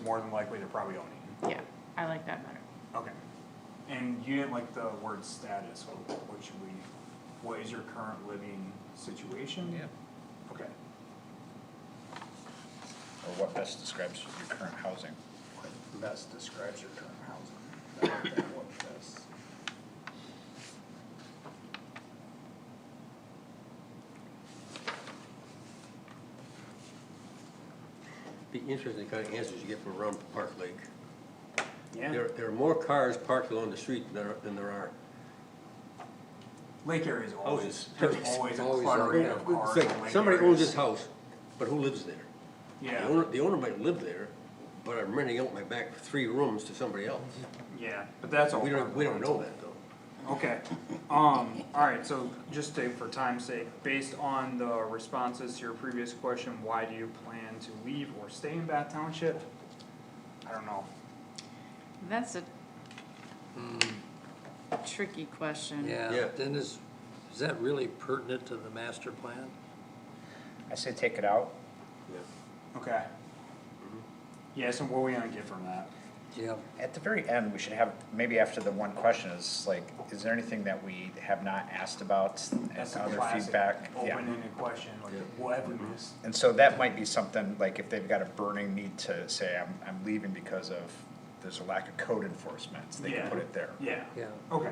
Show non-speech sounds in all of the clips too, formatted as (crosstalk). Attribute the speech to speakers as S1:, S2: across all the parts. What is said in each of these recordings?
S1: more than likely they're probably owning you.
S2: Yeah, I like that better.
S1: Okay. And you didn't like the word status, so what should we, what is your current living situation?
S3: Yeah.
S1: Okay.
S3: Or what best describes your current housing?
S1: What Best describes your current housing. I like that one best.
S4: Be interesting kind of answers you get from around Park Lake.
S1: Yeah,
S4: There, there are more cars parked along the street than there, than there are.
S1: lake area is always,
S4: houses.
S1: there's always a
S4: Oh, Always
S1: cluttering
S4: are.
S1: of cars
S4: It's
S1: in
S4: like,
S1: lake
S4: Somebody owns
S1: areas.
S4: this house, but who lives there? The
S1: Yeah,
S4: owner, the owner might live there, but I'm renting out my back three rooms to somebody else.
S1: yeah, but that's all.
S4: We don't,
S1: private
S4: we don't
S1: rental.
S4: know that though.
S1: Okay, um, alright, so just to, for time's sake, based on the responses to your previous question, why do you plan to leave or stay in Bath Township? I don't know,
S2: That's a tricky question.
S4: Yeah.
S5: Yeah, then is, is that really pertinent to the master plan?
S3: I say take it out.
S1: okay.
S3: Mm-hmm.
S1: Yes, and what are we gonna get from that?
S5: Yeah.
S3: At the very end, we should have, maybe after the one question is like, is there anything that we have not asked about?
S1: That's
S3: and
S1: a
S3: Other
S1: classic
S3: feedback? Yeah. Mm-hmm.
S1: open-ended question, like, what have we missed?
S3: And so that might be something, like if they've got a burning need to say, I'm, I'm leaving because of, there's a lack of code enforcement, so they
S1: Yeah.
S3: can put it there.
S1: Yeah.
S5: Yeah.
S1: Okay.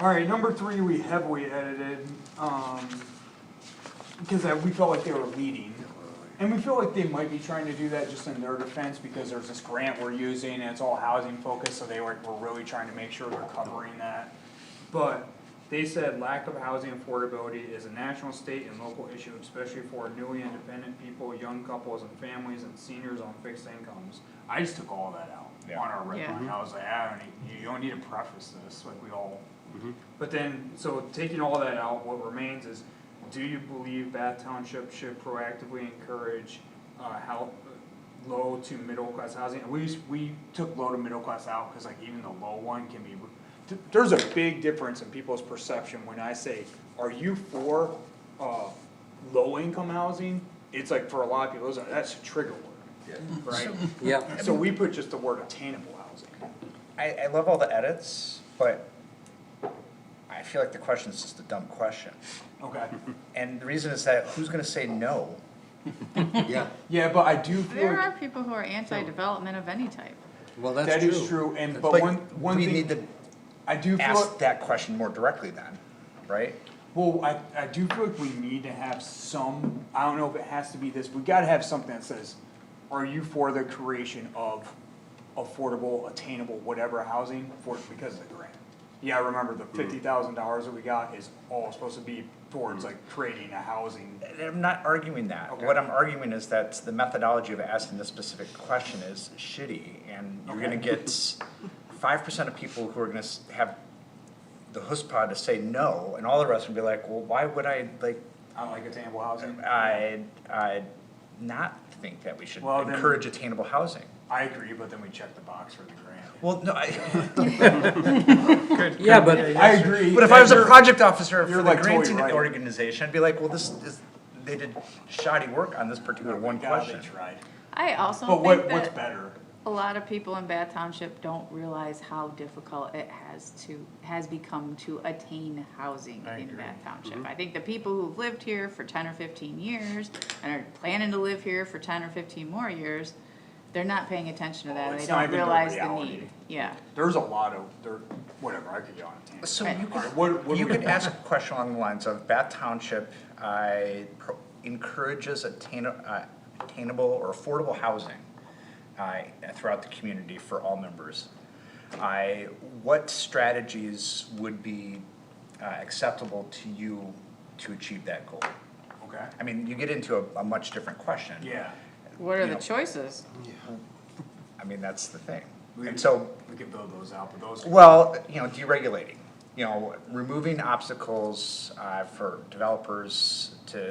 S1: Alright, number three, we heavily edited, um, because I- we felt like they were leading. And we feel like they might be trying to do that just in their defense, because there's this grant we're using, and it's all housing focused, so they were, were really trying to make sure they're covering that. But they said lack of housing affordability is a national, state, and local issue, especially for newly independent people, young couples and families, and seniors on fixed incomes. I just took all that out
S3: Yeah.
S1: on our red
S2: Yeah.
S1: line. I was like, I don't need, you don't need to preface this, like we all. But then, so taking all that out, what remains is, do you believe Bath Township should proactively encourage, uh, how, low to middle class housing? And we, s- we took low to middle class out, cause like even the low one can be, th- there's a big difference in people's perception when I say, are you for, uh, low income housing? It's like for a lot of people, it's like, that's a trigger word,
S4: Yeah.
S1: right?
S5: Yeah,
S1: So we put just the word attainable housing.
S3: I, I love all the edits, but I feel like the question is just a dumb question.
S1: Okay.
S3: And the reason is that who's gonna say no?
S4: Yeah,
S1: Yeah, but I do feel
S2: There
S1: like
S2: are people who are anti-development of any type.
S5: well,
S1: that
S5: that's
S1: is
S5: true.
S1: true, and but
S3: Like,
S1: one, one
S3: We need
S1: thing,
S3: to
S1: I do feel,
S3: ask
S1: like-
S3: that question more directly then, right?
S1: well, I, I do feel like we need to have some, I don't know if it has to be this, we gotta have something that says, are you for the creation of affordable, attainable, whatever housing for, because of the grant? Yeah, I remember the
S3: Mm-hmm.
S1: fifty thousand dollars that we got is all supposed to be towards like creating a housing,
S3: And I'm not arguing that.
S1: Okay.
S3: What I'm arguing is that the methodology of asking this specific question is shitty, and you're gonna get five percent of people who are gonna s- have the huspah to say no, and all the rest will be like, well, why would I, like,
S1: I like attainable housing.
S3: I, I not think that we should
S1: Well, then-
S3: encourage attainable housing.
S1: I agree, but then we check the box for the grant.
S3: Well, no, I,
S5: Yeah, but,
S1: I agree.
S3: (laughs) but if I was a
S1: You're-
S3: project officer
S1: you're
S3: for the
S1: like totally
S3: granting
S1: right.
S3: organization, I'd be like, well, this is, they did shoddy work on this particular one
S1: God, they
S3: question.
S1: tried.
S2: I also
S1: But
S2: think
S1: what, what's
S2: that
S1: better?
S2: a lot of people in Bath Township don't realize how difficult it has to, has become to attain housing
S1: I
S2: in
S1: agree.
S2: Bath Township. I think the people who've lived here for ten or fifteen years and are planning to live here for ten or fifteen more years, they're not paying attention to
S1: Well,
S2: that. and
S1: it's
S2: They
S1: not
S2: don't
S1: even their
S2: realize the
S1: reality.
S2: need. Yeah.
S1: There's a lot of, there, whatever, I could go on a tangent.
S3: So
S2: Right.
S3: you
S1: All
S3: could
S1: right, what, what do
S3: You
S1: we-
S3: could ask a question along the lines of Bath Township, I pro- encourages attain, uh, attainable or affordable housing, uh, throughout the community for all members. I, what strategies would be, uh, acceptable to you to achieve that goal?
S1: Okay,
S3: I mean, you get into a, a much different question.
S1: yeah.
S2: What are
S3: Yeah.
S2: the choices?
S3: I mean, that's the thing.
S1: We-
S3: And so,
S1: We could build those out, but those.
S3: Well, you know, deregulating, you know, removing obstacles uh, for developers to,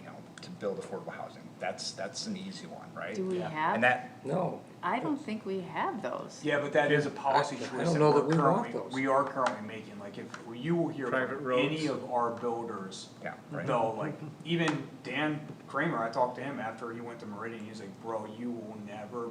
S3: you know, to build affordable housing. That's, that's an easy one, right?
S2: Do we
S1: Yeah.
S2: have?
S3: And that,
S5: no,
S2: I don't think we have those.
S1: Yeah, but that is a policy
S5: I- I
S1: choice
S5: don't
S1: that
S5: know that
S1: we're
S5: we want
S1: currently,
S5: those.
S1: we are currently making, like if, you will hear
S6: Private
S1: from any
S6: roads.
S1: of our builders.
S3: Yeah, right.
S1: They'll like, even Dan Kramer, I talked to him after he went to Meridian, he's like, bro, you will never